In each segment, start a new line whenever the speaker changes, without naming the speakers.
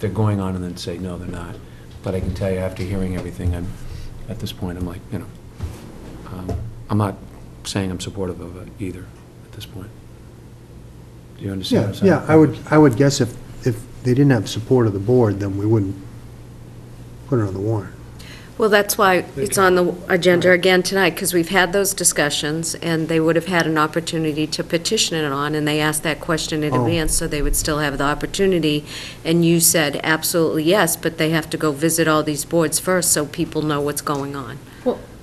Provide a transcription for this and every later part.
they're going on and then say, no, they're not. But I can tell you, after hearing everything, I'm, at this point, I'm like, you know, um, I'm not saying I'm supportive of it either, at this point. Do you understand what
Yeah,
I'm saying?
yeah, I would, I would guess if, if they didn't have support of the board, then we wouldn't put it on the warrant.
Well, that's why it's on the agenda again tonight, because we've had those discussions, and they would have had an opportunity to petition it on, and they asked that question in
Oh.
advance, so they would still have the opportunity. And you said absolutely yes, but they have to go visit all these boards first, so people know what's going on.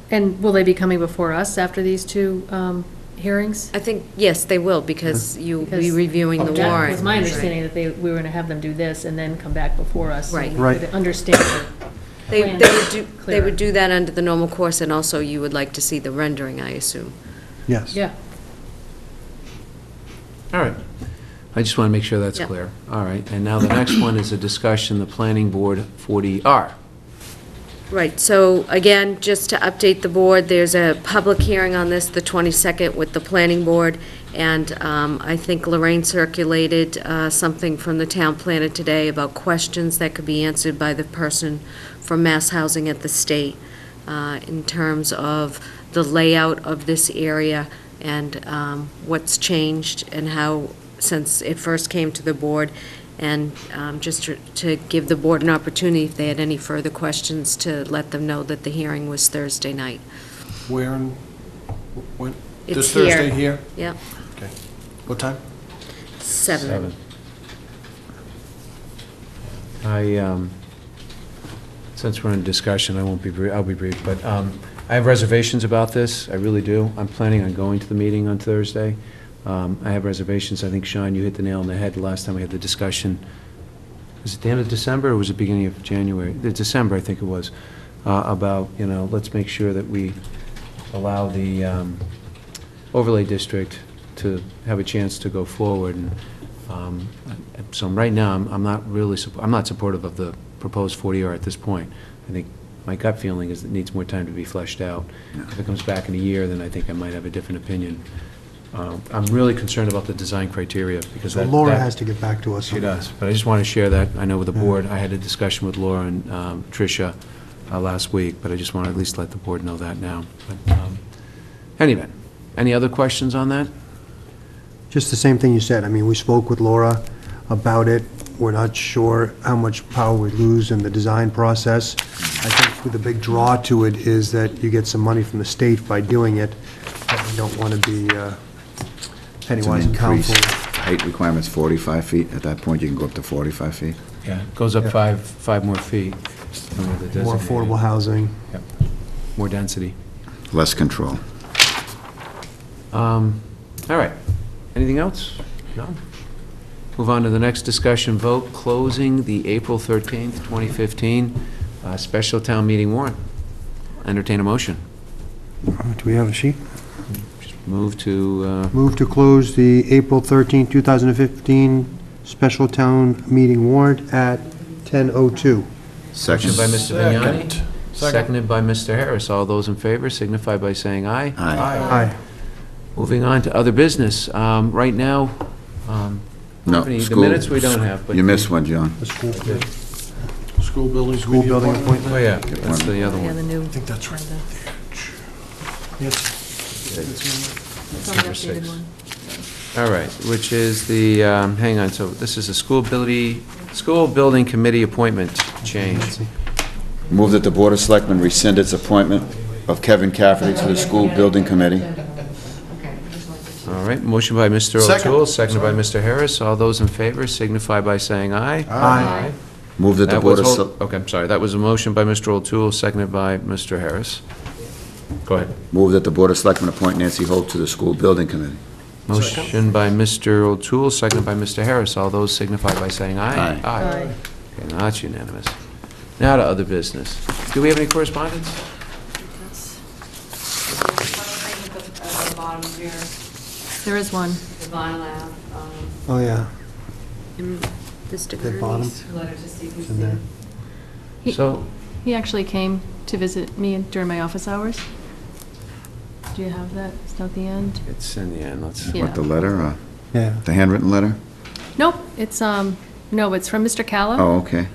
And will they be coming before us after these two um, hearings?
I think, yes, they will, because you'll be
Because-
reviewing the
That
warrant.
was my understanding that they, we were going to have them do this and then come back before us. so we
Right.
Right.
could Understand. it.
They,
plan
they would do, they
clearer.
would do that under the normal course, and also you would like to see the rendering, I assume.
Yes.
Yeah.
All right. I just want to make sure that's
Yeah.
clear. All right, and now the next one is a discussion, the planning board 40R.
Right, so again, just to update the board, there's a public hearing on this, the 22nd, with the planning board, and um, I think Lorraine circulated uh, something from the town planner today about questions that could be answered by the person from Mass Housing at the state uh, in terms of the layout of this area and um, what's changed and how, since it first came to the board, and um, just to- to give the board an opportunity, if they had any further questions, to let them know that the hearing was Thursday night.
Where and when?
It's
This Thursday
here.
here?
Yep,
Okay. What time?
seven.
I, um, since we're in discussion, I won't be brief, I'll be brief, but um, I have reservations about this, I really do. I'm planning on going to the meeting on Thursday. Um, I have reservations, I think, Sean, you hit the nail on the head the last time we had the discussion. Was it the end of December, or was it beginning of January? The December, I think it was, uh, about, you know, let's make sure that we allow the um, overlay district to have a chance to go forward, and um, So right now, I'm I'm not really, supp- I'm not supportive of the proposed 40R at this point. I think my gut feeling is it needs more time to be fleshed out. If it comes back in a year, then I think I might have a different opinion. Uh, I'm really concerned about the design criteria, because
So
that...
Laura
that-
has to get back to us.
She
on
does,
that.
but I just want to share that, I know with the
Yeah.
board, I had a discussion with Laura and um, Tricia uh, last week, but I just want to at least let the board know that now. But, um, Anyway, any other questions on that?
Just the same thing you said. I mean, we spoke with Laura about it. We're not sure how much power we lose in the design process. I think the big draw to it is that you get some money from the state by doing it, but we don't want to be uh, penny
It's an
wise and
increase.
countful.
Height requirement's 45 feet. At that point, you can go up to 45 feet.
Yeah, it goes up five, five more feet. than what the
More
designated-
affordable housing.
Yep. More density.
Less control.
Um, All right. Anything else? No? Move on to the next discussion vote, closing the April 13th, 2015 uh, special town meeting warrant. Entertain a motion.
Do we have a sheet?
Move to, uh,
Move to close the April 13, 2015 special town meeting warrant at 10:02.
motion by Mr. Vignani,
Second.
seconded by Mr. Harris. All those in favor signify by saying aye.
Aye.
Aye.
Moving on to other business. Um, Right now, um,
No,
Company, the
school-
minutes we don't have, but
You missed
the-
one, John.
The school,
School buildings.
school building appointment.
oh yeah, that's the other
Yeah,
one.
the new.
I think that's right there. Yes.
Number six. All right, which is the, um, hang on, so this is a school ability, school building committee appointment change.
Move that the Board of Selectmen rescind its appointment of Kevin Cafferty to the School Building Committee.
All right, motion by Mr.
Second.
O'Toole, seconded by Mr. Harris. All those in favor signify by saying aye.
Aye.
Move that the
That was,
Board of...
hol-
Sel-
okay, I'm sorry, that was a motion by Mr. O'Toole, seconded by Mr. Harris. Go ahead.
Move that the Board of Selectmen appoint Nancy Holt to the School Building Committee.
Motion by Mr. O'Toole, seconded by Mr. Harris. All those signify by saying aye.
Aye.
Aye.
Okay, now that's unanimous. Now to other business. Do we have any correspondence?
There is one.
Oh, yeah.
Mr.
The bottom.
Kearney's.
It's in there.
He-
So-
He actually came to visit me during my office hours. Do you have that? It's not the end?
It's in the end, let's,
Yeah.
What, the letter, uh,
Yeah.
the handwritten letter?
Nope, it's, um, no, it's from Mr. Calla.
Oh, okay.